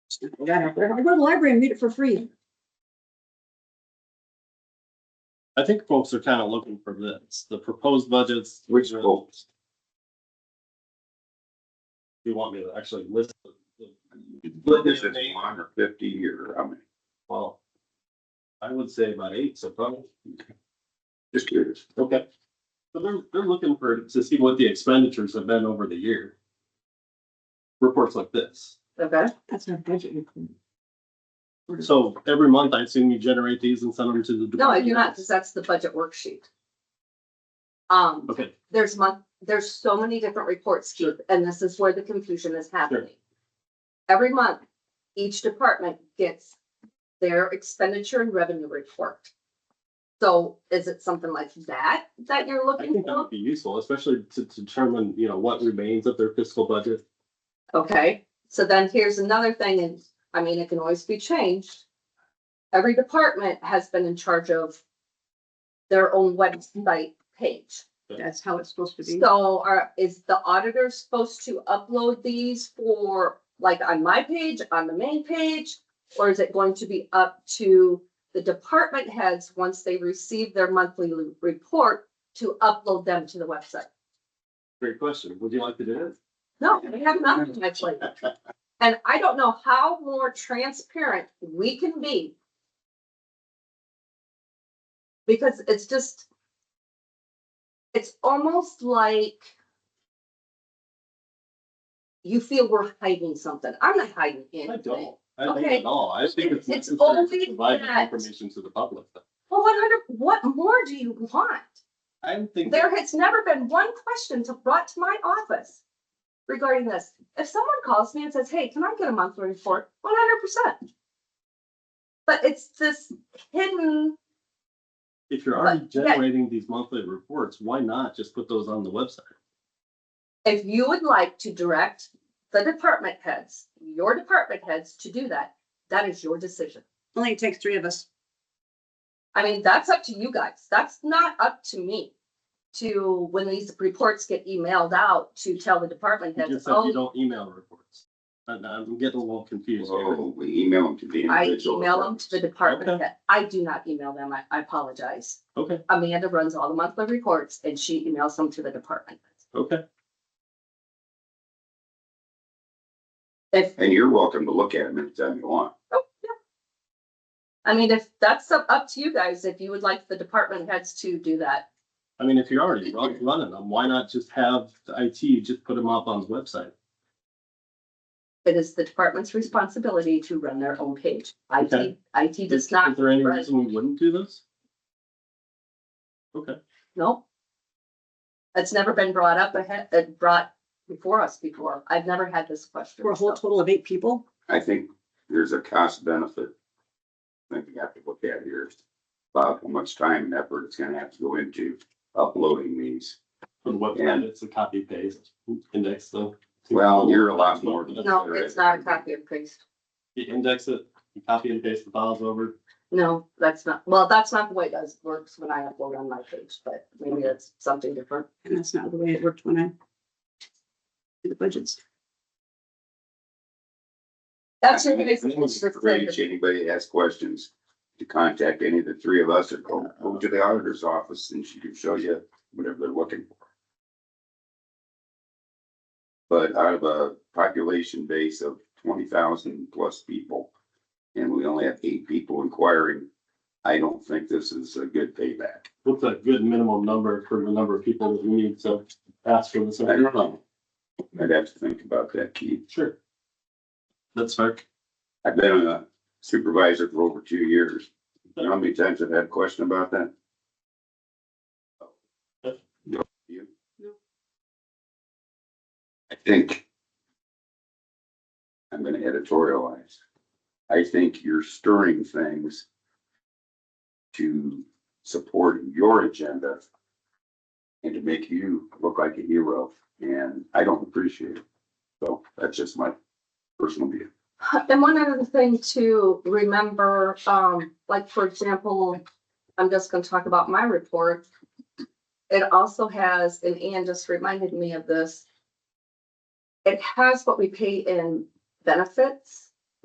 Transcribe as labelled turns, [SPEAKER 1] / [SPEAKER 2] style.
[SPEAKER 1] I go to the library and read it for free.
[SPEAKER 2] I think folks are kind of looking for this, the proposed budgets.
[SPEAKER 3] Which
[SPEAKER 2] the-
[SPEAKER 3] folks?
[SPEAKER 2] You want me to actually list? the- the-
[SPEAKER 3] This is one or fifty or, I mean,
[SPEAKER 2] Well, I would say about eight, so probably,
[SPEAKER 3] just curious.
[SPEAKER 2] okay. So they're, they're looking for, to see what the expenditures have been over the year. Reports like this.
[SPEAKER 4] Okay,
[SPEAKER 1] That's our budget. report.
[SPEAKER 2] So every month, I assume you generate these and send them to the.
[SPEAKER 4] no, I do not, because that's the budget worksheet. Um,
[SPEAKER 2] Okay,
[SPEAKER 4] there's month, there's so many different reports, Keith, and this is where the confusion is happening. Every month, each department gets their expenditure and revenue report. So is it something like that that you're
[SPEAKER 2] I
[SPEAKER 4] looking
[SPEAKER 2] think that
[SPEAKER 4] for?
[SPEAKER 2] would be useful, especially to to determine, you know, what remains of their fiscal budget.
[SPEAKER 4] Okay, so then here's another thing, and I mean, it can always be changed. Every department has been in charge of their own website page.
[SPEAKER 1] That's how it's supposed to be.
[SPEAKER 4] So are, is the auditor supposed to upload these for, like, on my page, on the main page? Or is it going to be up to the department heads, once they receive their monthly l- report, to upload them to the website?
[SPEAKER 2] Great question, would you like to do it?
[SPEAKER 4] No, we have nothing like that. And I don't know how more transparent we can be. Because it's just. It's almost like. You feel we're hiding something. I'm not hiding
[SPEAKER 2] I
[SPEAKER 4] anything.
[SPEAKER 2] don't, I don't
[SPEAKER 4] Okay.
[SPEAKER 2] at all, I think it's
[SPEAKER 4] It's
[SPEAKER 2] necessary
[SPEAKER 4] only
[SPEAKER 2] to provide this
[SPEAKER 4] that-
[SPEAKER 2] information to the public.
[SPEAKER 4] Well, what other, what more do you want?
[SPEAKER 2] I don't think,
[SPEAKER 4] There has never been one question to brought to my office regarding this. If someone calls me and says, hey, can I get a monthly report? One hundred percent. But it's this hidden,
[SPEAKER 2] if you're already
[SPEAKER 4] But that-
[SPEAKER 2] generating these monthly reports, why not just put those on the website?
[SPEAKER 4] if you would like to direct the department heads, your department heads to do that, that is your decision.
[SPEAKER 1] Only it takes three of us.
[SPEAKER 4] I mean, that's up to you guys. That's not up to me to, when these reports get emailed out, to tell the department
[SPEAKER 2] You
[SPEAKER 4] heads,
[SPEAKER 2] just said you
[SPEAKER 4] oh,
[SPEAKER 2] don't email reports. And I'm getting a little confused here.
[SPEAKER 3] So we email them to the
[SPEAKER 4] I
[SPEAKER 3] individual.
[SPEAKER 4] email them to the department
[SPEAKER 2] Okay.
[SPEAKER 4] head. I do not email them. I, I apologize.
[SPEAKER 2] Okay,
[SPEAKER 4] Amanda runs all the monthly reports and she emails them to the department.
[SPEAKER 2] okay,
[SPEAKER 4] If,
[SPEAKER 3] And you're welcome to look at them anytime you want.
[SPEAKER 4] I mean, if that's up up to you guys, if you would like the department heads to do that.
[SPEAKER 2] I mean, if you're already run- running them, why not just have the IT just put them up on the website?
[SPEAKER 4] It is the department's responsibility to run their own page. IT,
[SPEAKER 2] Okay.
[SPEAKER 4] IT does
[SPEAKER 2] Is- Is
[SPEAKER 4] not,
[SPEAKER 2] there any
[SPEAKER 4] run-
[SPEAKER 2] reason we wouldn't do this? Okay,
[SPEAKER 4] no. It's never been brought up ahead, uh, brought before us before. I've never had this question.
[SPEAKER 1] We're a whole
[SPEAKER 4] so.
[SPEAKER 1] total of eight people.
[SPEAKER 3] I think there's a cost benefit. I think we have to look at here, is about how much time and effort it's gonna have to go into uploading these.
[SPEAKER 2] on the website, it's a copy paste index though.
[SPEAKER 3] Well, you're a lot more than-
[SPEAKER 4] No, it's not a copy and paste.
[SPEAKER 2] You index it, you copy and paste the files over.
[SPEAKER 4] No, that's not, well, that's not the way it does, works when I upload on my page, but maybe that's something different.
[SPEAKER 1] And that's not the way it worked when I did the budgets.
[SPEAKER 4] That's your
[SPEAKER 3] I think it's great if
[SPEAKER 4] biggest.
[SPEAKER 3] Anybody has questions, to contact any of the three of us or go, go to the auditor's office and she can show you whatever they're looking for. But out of a population base of twenty thousand plus people, and we only have eight people inquiring, I don't think this is a good payback.
[SPEAKER 2] What's a good minimum number for the number of people that we need to ask for this?
[SPEAKER 3] I don't know. I'd have to think about that, Keith.
[SPEAKER 2] Sure. That's fair.
[SPEAKER 3] I've been a supervisor for over two years. You know how many times I've had a question about that? No, you?
[SPEAKER 1] No.
[SPEAKER 3] I think I'm gonna editorialize. I think you're stirring things to support your agenda and to make you look like a hero, and I don't appreciate it. So that's just my personal view.
[SPEAKER 4] Uh, And one other thing to remember, um, like, for example, I'm just gonna talk about my report. It also has, and Ann just reminded me of this. It has what we pay in benefits.